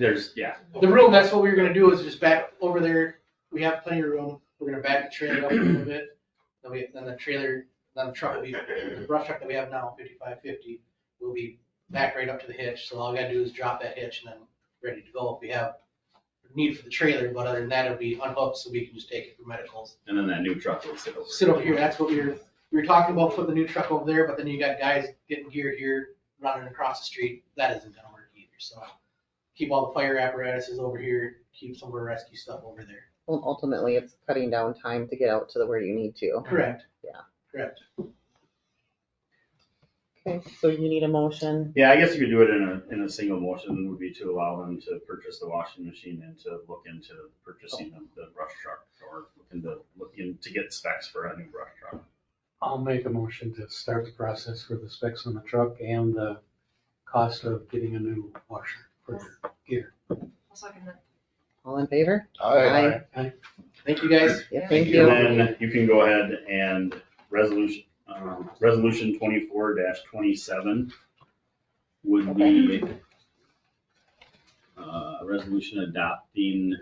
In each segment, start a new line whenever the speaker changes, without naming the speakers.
There's, yeah.
The room, that's what we were gonna do, is just back over there, we have plenty of room, we're gonna back the trailer up a little bit. Then we, then the trailer, then the truck will be, the brush truck that we have now, fifty-five fifty, will be back right up to the hitch, so all we gotta do is drop that hitch and then ready to go if we have need for the trailer, but other than that, it'll be unhooked, so we can just take it for medicals.
And then that new truck will sit over.
Sit over here, that's what we were, we were talking about putting the new truck over there, but then you got guys getting gear here, running across the street, that isn't gonna work either, so. Keep all the fire apparatuses over here, keep some of our rescue stuff over there.
Well, ultimately, it's cutting down time to get out to the where you need to.
Correct.
Yeah.
Correct.
Okay, so you need a motion.
Yeah, I guess you could do it in a, in a single motion would be to allow them to purchase the washing machine and to look into purchasing of the brush truck or looking to, looking to get specs for a new brush truck.
I'll make a motion to start the process for the specs on the truck and the cost of getting a new washer for gear.
I'll second that.
All in favor?
I,
Aye.
Aye.
Thank you, guys.
Yeah,
Yeah.
thank
And
you.
then you can go ahead and resolution, um, resolution twenty-four twenty-seven would be uh, a resolution adopting,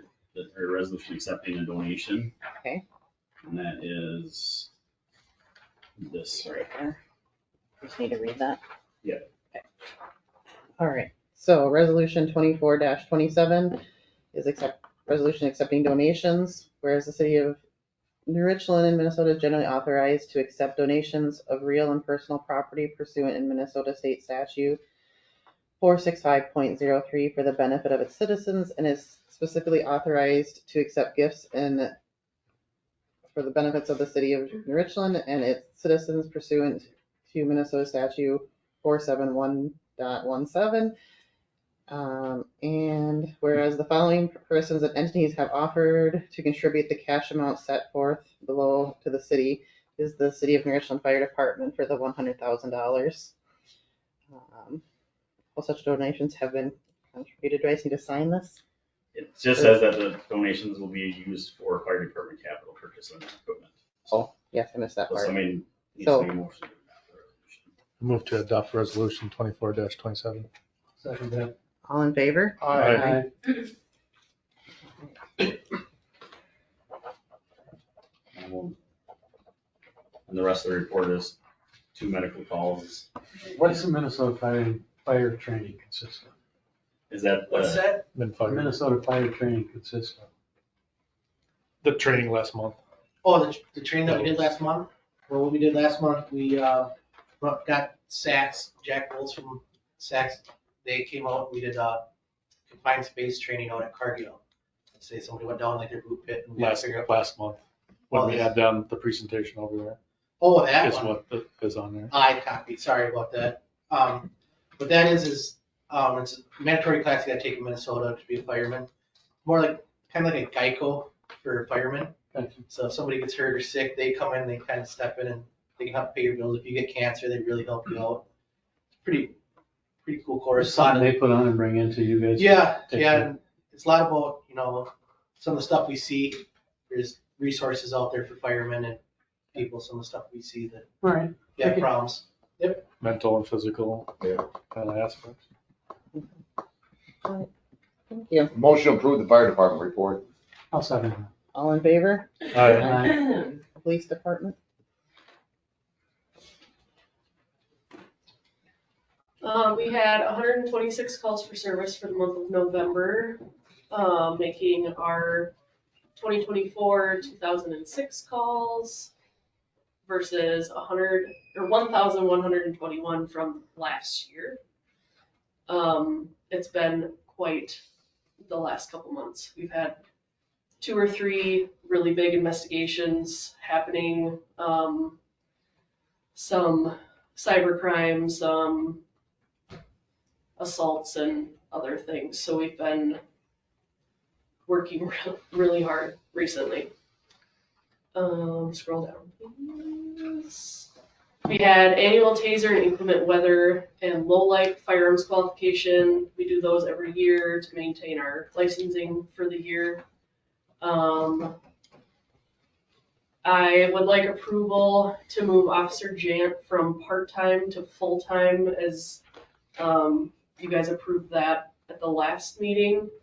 or a resolution accepting a donation.
Okay.
And that is this right
Just need to read that.
Yeah.
Okay. All right, so resolution twenty-four twenty-seven is accept, resolution accepting donations, whereas the city of New Richland in Minnesota is generally authorized to accept donations of real and personal property pursuant in Minnesota State Statute four six five point zero three for the benefit of its citizens and is specifically authorized to accept gifts and for the benefits of the city of New Richland and its citizens pursuant to Minnesota statute four seven one dot one seven. Um, and whereas the following persons and entities have offered to contribute the cash amount set forth below to the city is the City of New Richland Fire Department for the one hundred thousand dollars. Um, All such donations have been contributed. Do I just need to sign this?
It just says that the donations will be used for fire department capital purchase and equipment.
Oh, yes, I missed that
So
part.
somebody needs
So-
to make a motion. to adopt the resolution.
move to adopt resolution twenty-four twenty-seven.
Second that.
All in favor?
Aye.
And we'll- Um, and the rest of the report is two medical calls.
What's the Minnesota fire, fire training consist of?
Is that uh,
What's
the,
that?
Been
The
fired.
Minnesota fire training consists of?
The training last month.
Oh, the, the training that we did last month? Well, what we did last month, we, uh, brought- got Saks, Jack Bowles from Saks. They came out, we did, uh, confined space training out at Cargill. Let's Say somebody went down like their boot pit and we had to
Last,
figure out.
last month, when we had them, the presentation over there,
Oh, that
is
one.
what the- is on there.
I copied, sorry about that. Um, what that is, is, um, it's a mandatory class you gotta take in Minnesota to be a fireman. More like, kind of like a Geico for firemen. So if somebody gets hurt or sick, they come in, they kind of step in and they can help pay your bills. If you get cancer, they really help you out. It's Pretty, pretty cool course.
Something they put on and bring into you guys?
Yeah,
Take
yeah,
care.
and it's a lot about, you know, some of the stuff we see, there's resources out there for firemen and people, some of the stuff we see that
All right.
they have
Okay.
problems.
Mental and physical kind of aspects.
Thank you.
Motion to approve the fire department report.
I'll second that.
All in favor?
Aye.
Police Department?
Uh, we had hundred and twenty-six calls for service for the month of November, uh, making our twenty twenty-four, two thousand and six calls versus hundred, or one thousand one hundred and twenty-one from last year. Um, it's been quite the last couple months. We've had two or three really big investigations happening, um, some cyber crimes, um, assaults and other things, so we've been working re- really hard recently. Um, scroll down. please. We had annual taser and inclement weather and low light firearms qualification. We do those every year to maintain our licensing for the year. Um, I would like approval to move Officer Jant from part-time to full-time as, um, you guys approved that at the last meeting.